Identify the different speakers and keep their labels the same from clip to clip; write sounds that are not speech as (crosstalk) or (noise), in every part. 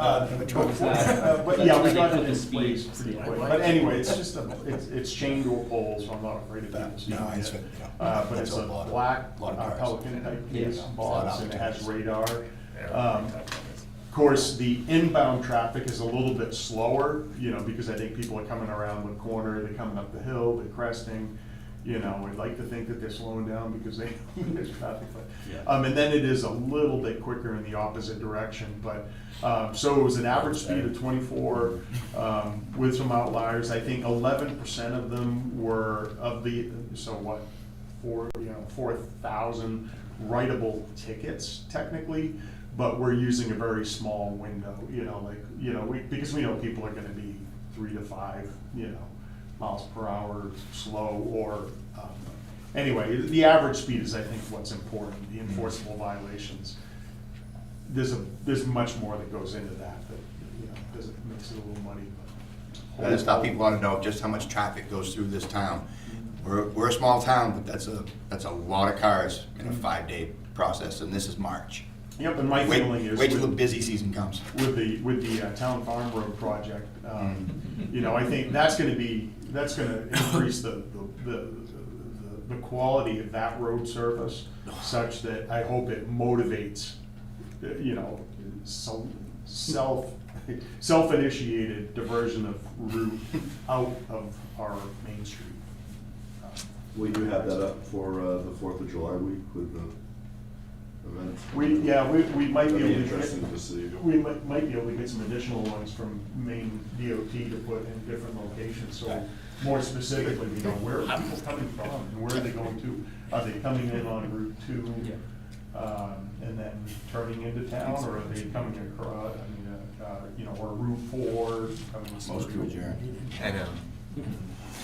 Speaker 1: Uh,
Speaker 2: Which one was that?
Speaker 1: But yeah, we got it in place pretty quick. But anyway, it's just a, it's, it's chained to a pole, so I'm not afraid of people seeing
Speaker 2: No, it's,
Speaker 1: it.
Speaker 2: you know,
Speaker 1: Uh, but it's
Speaker 2: that's
Speaker 1: a
Speaker 2: lot of-
Speaker 1: black
Speaker 2: lot of
Speaker 1: uh,
Speaker 2: cars.
Speaker 1: Pelican type
Speaker 3: Yes.
Speaker 1: case box and it has radar. Um,
Speaker 4: Well,
Speaker 1: Of course, the inbound traffic is a little bit slower, you know, because I think people are coming around the corner, they're coming up the hill, they're cresting. You know, I'd like to think that they're slowing down because they, (laughs) there's traffic,
Speaker 3: Yeah.
Speaker 1: but, um, and then it is a little bit quicker in the opposite direction, but, um, so it was an average speed of twenty-four, um, with some outliers, I think eleven percent of them were of the, so what, four, you know, four thousand writable tickets technically, but we're using a very small window, you know, like, you know, we, because we know people are gonna be three to five, you know, miles per hour slow or, um, anyway, the average speed is, I think, what's important, the enforceable violations. There's a, there's much more that goes into that, that, you know, does it, makes it a little muddy, but.
Speaker 2: That's how people want to know just how much traffic goes through this town. We're, we're a small town, but that's a, that's a lot of cars in a five-day process, and this is March.
Speaker 1: Yep, and my
Speaker 2: Wait,
Speaker 1: feeling is.
Speaker 2: wait till
Speaker 1: with-
Speaker 2: the busy season comes.
Speaker 1: with the, with the uh, town farm road project, um, you know, I think that's gonna be, that's gonna increase the, the- the, the, the quality of that road service such that I hope it motivates, uh, you know, so, self, self-initiated diversion of route out of our main street. Uh,
Speaker 5: you have that up for uh, the Fourth of July week with the event?
Speaker 1: We, yeah, we, we might be
Speaker 5: That'd
Speaker 1: able
Speaker 5: be
Speaker 1: to.
Speaker 5: interesting to see.
Speaker 1: We might, might be able to get some additional ones from Maine DOT to put in different locations, so more specifically, we know where are people coming from, and where are they going to? Are they coming in on Route Two? Um, and then turning into town, or are they coming across, I mean, uh, uh, you know, or Route Four? coming
Speaker 2: Motion to
Speaker 1: through?
Speaker 2: adjourn.
Speaker 4: I know.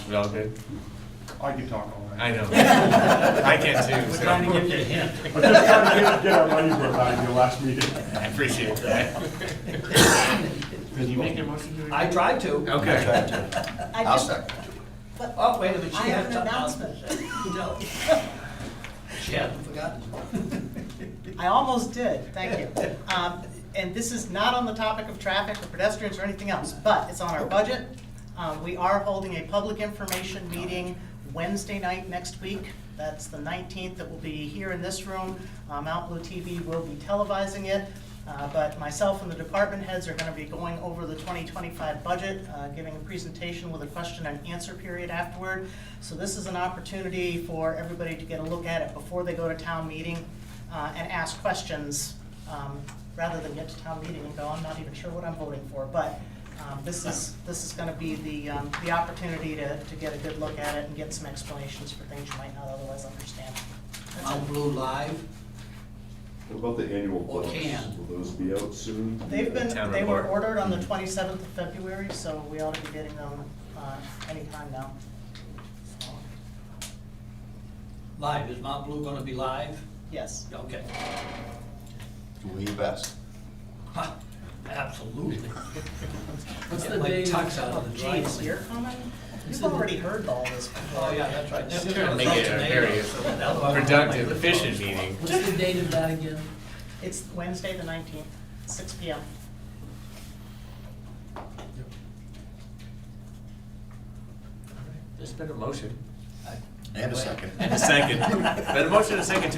Speaker 4: We all good?
Speaker 1: I could talk all night.
Speaker 4: I
Speaker 3: (laughs)
Speaker 4: know. I can too,
Speaker 3: We're
Speaker 4: so.
Speaker 3: trying to give you a hint.
Speaker 1: I'm just trying to (laughs) get, get our money's worth out of your last meeting.
Speaker 4: (laughs) I appreciate that. Did you make a motion to?
Speaker 3: I tried to.
Speaker 4: Oh. Okay.
Speaker 6: I
Speaker 2: I'll
Speaker 6: just,
Speaker 2: second.
Speaker 3: Oh, wait a minute, she
Speaker 6: I
Speaker 3: has
Speaker 6: have an
Speaker 3: something else.
Speaker 6: announcement.
Speaker 3: (laughs)
Speaker 7: (laughs)
Speaker 3: No. She hasn't forgotten.
Speaker 6: I almost did, thank you. Um, And this is not on the topic of traffic or pedestrians or anything else, but it's on our budget. Um, We are holding a public information meeting Wednesday night next week. That's the 19th, that will be here in this room. Uh, Mount Blue TV will be televising it. Uh, But myself and the department heads are going to be going over the 2025 budget, uh, giving a presentation with a question and answer period afterward. So this is an opportunity for everybody to get a look at it before they go to town meeting uh, and ask questions, um, rather than get to town meeting and go, I'm not even sure what I'm voting for. But um, this is, this is going to be the, um, the opportunity to, to get a good look at it and get some explanations for things you might not otherwise understand.
Speaker 3: Mount Blue Live,
Speaker 5: What about the annual
Speaker 3: Or
Speaker 5: books?
Speaker 3: can.
Speaker 5: Will those be out soon?
Speaker 6: They've been,
Speaker 4: Town
Speaker 6: they were
Speaker 4: report. Mm-hmm.
Speaker 6: ordered on the 27th of February, so we ought to be getting them uh, anytime now. So,
Speaker 3: live, is Mount Blue gonna be live?
Speaker 6: Yes.
Speaker 3: Okay.
Speaker 2: Do we best?
Speaker 3: Huh, Absolutely.
Speaker 7: (laughs) What's
Speaker 3: Get
Speaker 7: the
Speaker 3: my
Speaker 7: date?
Speaker 3: tucks out of the
Speaker 6: Geez,
Speaker 3: driveway.
Speaker 6: you're coming? You've already heard all this before.
Speaker 3: Oh, yeah, that's right.
Speaker 7: Just
Speaker 3: They're
Speaker 7: trying to
Speaker 3: gonna
Speaker 4: Make it
Speaker 3: throw
Speaker 4: a very
Speaker 3: tomatoes, so that'll-
Speaker 4: productive, efficient meeting.
Speaker 7: What's the date of that again?
Speaker 6: It's Wednesday, the 19th, 6 PM.
Speaker 4: There's been a motion.
Speaker 3: I-
Speaker 2: And a second.
Speaker 3: (laughs)
Speaker 2: (laughs)
Speaker 4: And a second. Been a motion and a second to